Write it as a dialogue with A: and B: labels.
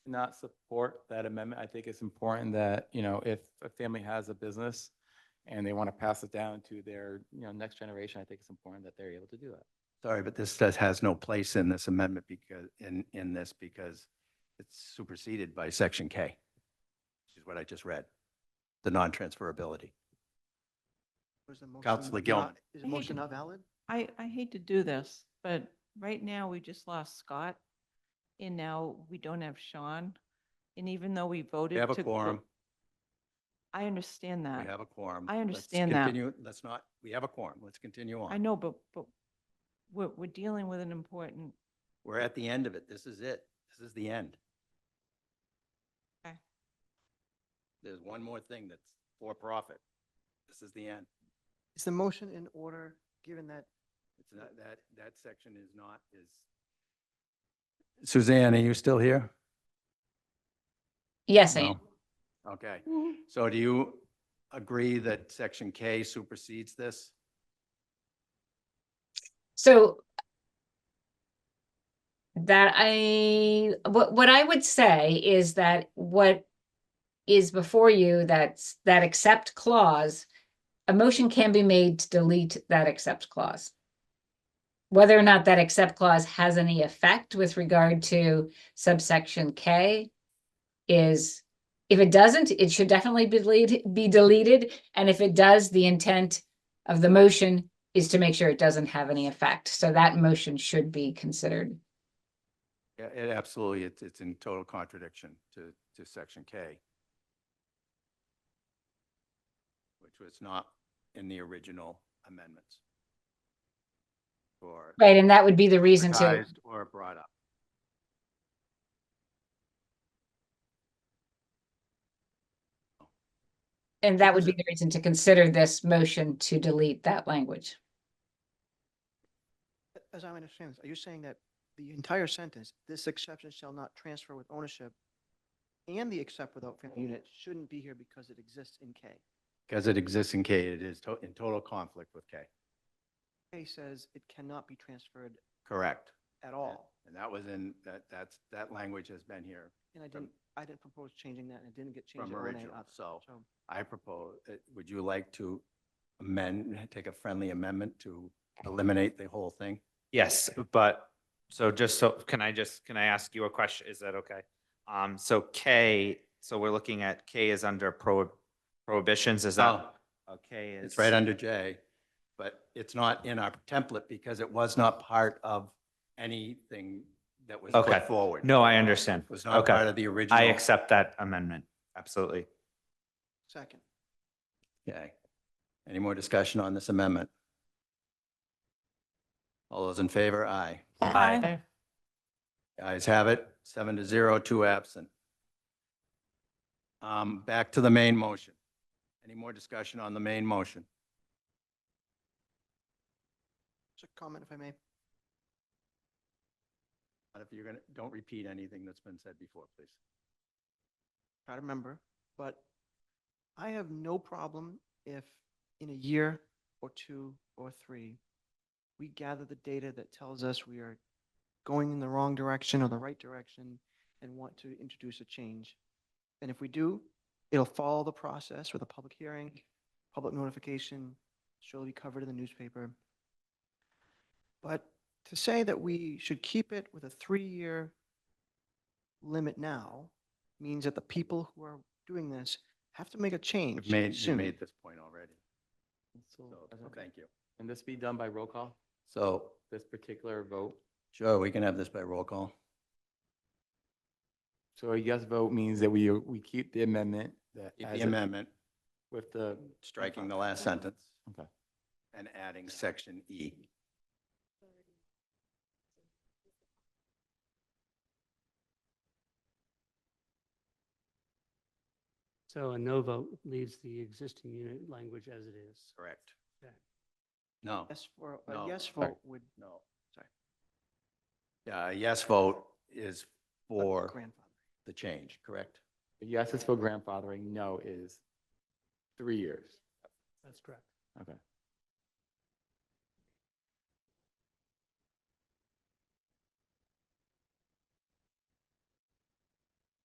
A: not support that amendment. I think it's important that, you know, if a family has a business and they want to pass it down to their, you know, next generation, I think it's important that they're able to do that.
B: Sorry, but this does, has no place in this amendment because, in, in this because it's superseded by section K, which is what I just read, the non-transferability.
C: Was the
B: Counselor
C: motion
B: Gilman.
C: not- Is the
D: I hate
C: motion
D: to-
C: not valid?
D: I, I hate to do this, but right now we just lost Scott and now we don't have Sean. And even though we voted
B: We have a
D: to clo-
B: quorum,
D: I understand
B: we
D: that.
B: have a quorum.
D: I
B: Let's
D: understand that.
B: continue- Let's not, we have a quorum, let's continue on.
D: I know, but, but we're, we're dealing with an important,
B: We're at the end of it, this is it, this is the end.
D: Okay.
B: There's one more thing that's for profit, this is the end.
C: Is the motion in order, given that
B: It's not, that, that section is not, is. Suzanne, are you still here?
E: Yes, I
B: No.
E: am.
B: Okay, so do you agree that section K supersedes this?
E: So that I, what, what I would say is that what is before you, that's, that accept clause, a motion can be made to delete that accept clause. Whether or not that accept clause has any effect with regard to subsection K is, if it doesn't, it should definitely be deleted, be deleted. And if it does, the intent of the motion is to make sure it doesn't have any effect. So that motion should be considered.
B: Yeah, it absolutely, it's, it's in total contradiction to, to section K. Which was not in the original amendments. Or
E: Right, and that would be the reason to,
B: advertised or brought up.
E: and that would be the reason to consider this motion to delete that language.
C: As I understand this, are you saying that the entire sentence, this exception shall not transfer with ownership and the except without family unit shouldn't be here because it exists in K?
B: Because it exists in K, it is to- in total conflict with K.
C: K says it cannot be transferred
B: Correct.
C: at all.
B: And that was in, that, that's, that language has been here
C: And I
B: From-
C: didn't, I didn't propose changing that and it didn't get changed.
B: from
C: in 1A
B: original.
C: either.
B: So
C: So
B: I propose, uh, would you like to amend, take a friendly amendment to eliminate the whole thing?
F: Yes, but, so just so, can I just, can I ask you a question? Is that okay? Um, so K, so we're looking at K is under prohib- prohibitions, is that?
B: Oh,
F: Okay, is.
B: It's right under J, but it's not in our template because it was not part of anything that was
F: Okay.
B: put forward.
F: No, I understand.
B: It was not part
F: Okay,
B: of the original.
F: I accept that amendment, absolutely.
C: second,
B: Okay. Any more discussion on this amendment? All those in favor? Aye.
F: Aye.
B: Guys have it, seven to zero, two absent. Um, back to the main motion. Any more discussion on the main motion?
C: just a comment if I may.
B: But if you're gonna, don't repeat anything that's been said before, please.
C: try to remember, but I have no problem if in a year or two or three, we gather the data that tells us we are going in the wrong direction or the right direction and want to introduce a change. And if we do, it'll follow the process with a public hearing, public notification, so it'll be covered in the newspaper. But to say that we should keep it with a three-year limit now means that the people who are doing this have to make a change
B: You've made, you
C: soon.
B: made this point already,
A: Oh,
B: so, thank you.
A: Can this be done by roll call,
B: So,
A: this particular vote?
B: Joe, we can have this by roll call.
A: So a yes vote means that we, we keep the amendment that.
B: Keep
A: as
B: The
A: it-
B: amendment,
A: With the,
B: striking the last sentence.
A: Okay.
B: And adding section E.
G: So a no vote leaves the existing unit language as it is.
B: Correct.
G: Okay.
B: No,
C: Yes, for,
B: No,
C: a yes
B: sorry.
C: vote would
B: no,
C: Sorry.
B: Yeah, a yes vote is for
C: for grandfather.
B: the change, correct?
A: a yes is for grandfathering, no is three years.
G: That's correct.
A: Okay.